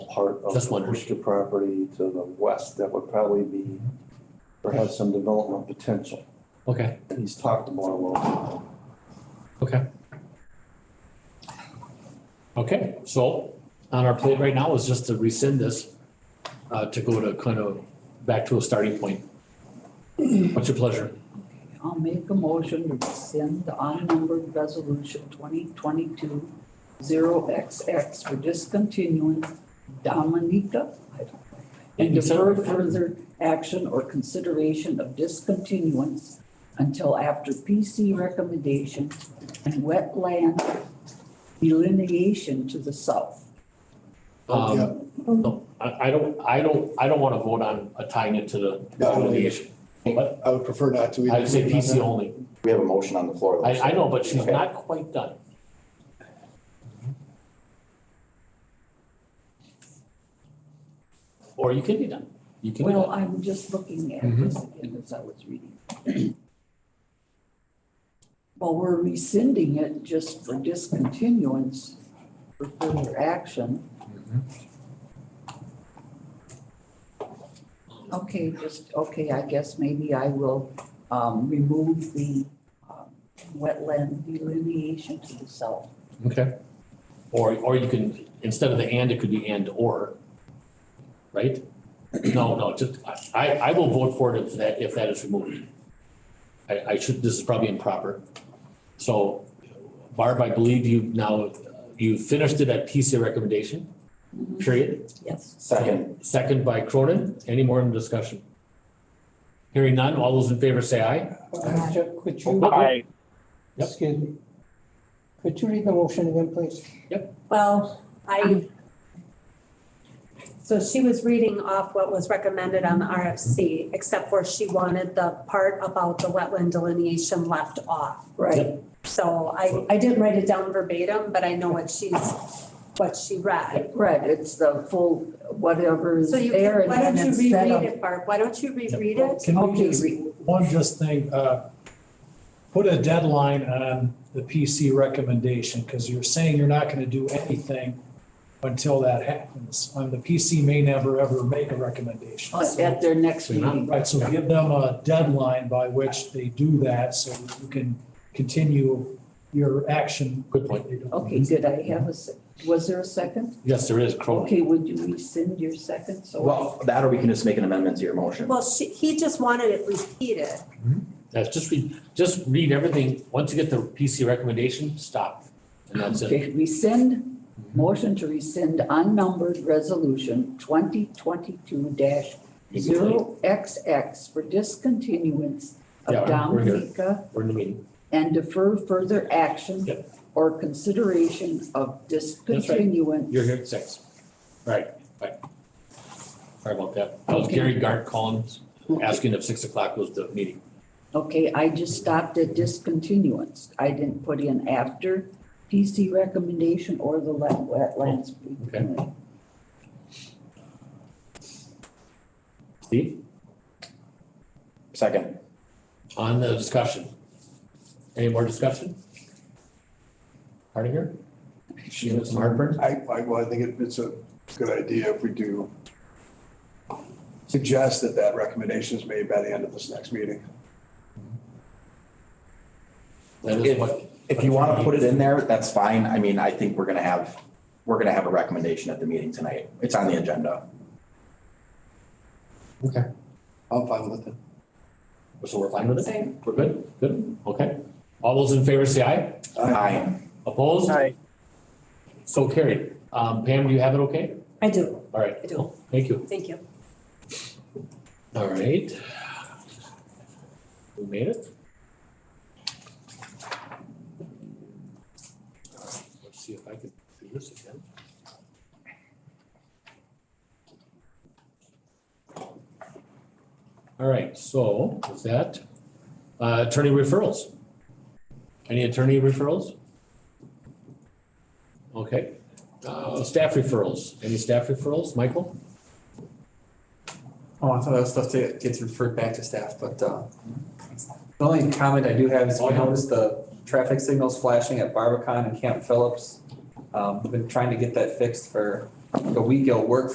part of Just the wondering. Worcester property to the west that would probably be, or have some development potential. Okay, He's talked about a little okay. Okay, so on our plate right now is just to rescind this, uh, to go to kind of back to a starting point. What's your pleasure? I'll make a motion to rescind the unnumbered resolution 2022 0XX for discontinuing Dominica I don't know, and defer further action or consideration of discontinuance until after PC recommendation and wetland delineation to the south. Um, no, I, I don't, I don't, I don't want to vote on uh, tying it to the Yeah, I don't litigation. But I would prefer not to. I'd say PC only. We have a motion on the floor. I, I know, but she's Okay. not quite done. Or you can be done. You can be Well, done. I'm just looking at Mhm. this again as I was reading. Well, we're rescinding it just for discontinuance for further action. Okay, just, okay, I guess maybe I will um, remove the um, wetland delineation to the south. Okay. Or, or you can, instead of the and, it could be and or. Right? No, no, just, I, I will vote for it if that, if that is removed. I, I should, this is probably improper. So Barb, I believe you now, you finished it at PC recommendation, period. Yes. Second. Second by Cronin. Any more in discussion? Hearing none. All those in favor say aye. Jeff, Could you, Aye. Yep. excuse me, could you read the motion again, please? Well, Um, I, so she was reading off what was recommended on the RFC, except for she wanted the part about the wetland delineation left off. Right. So I, I didn't write it down verbatim, but I know what she's, what she read. Right, it's the full, whatever is So you, there. can- and why don't then you instead of- reread it, Barb? Why don't you reread it? Can we Okay, just, re- one just thing, uh, put a deadline on the PC recommendation, because you're saying you're not gonna do anything until that happens. And the PC may never, ever make a recommendation. At their next meeting. Right, so give them a deadline by which they do that, so you can continue your action. Good point. Okay, did I have a, se- was there a second? Yes, there is Cronin. Okay, would you rescind your second? So Well, that or we can just make an amendment to your motion. Well, she, he just wanted it repeated. That's just read, just read everything. Once you get the PC recommendation, stop. And that's it. Okay, rescind, motion to rescind unnumbered resolution twenty twenty-two dash You can play. zero XX for discontinuance Yeah, of we're here. Dominica We're in the meeting. and defer further action Yep. or consideration of discontinuance. You're here at six. Right, right. Sorry about that. That was Okay. Gary Gart calling, asking if six o'clock was the meeting. Okay, I just stopped at discontinuance. I didn't put in after PC recommendation or the wet- wetlands. okay. Steve, Second. on the discussion. Any more discussion? Hardinger? She has some heartburn? I, I, well, I think it- it's a good idea if we do suggest that that recommendation is made by the end of this next meeting. That is what, If you want to put it in there, that's fine. I mean, I think we're going to have, we're going to have a recommendation at the meeting tonight. It's on the agenda. I'm fine with it. so we're fine with it? We're good? Good? Okay. All those in favor say aye. Aye. Opposed? Aye. So carried. Um, Pam, do you have it okay? I do, All right. I do. Thank you. Thank you. All right. We made it? All right, Let's see if I can do this again. All right, so with that, uh, attorney referrals. Any attorney referrals? Okay, uh, staff referrals. Any staff referrals? Michael? Oh, I thought that was stuff that gets referred back to staff, but uh, the only comment I do have is we noticed the traffic signals flashing at Barbican and Camp Phillips. Um, We've been trying to get that fixed for the week it'll work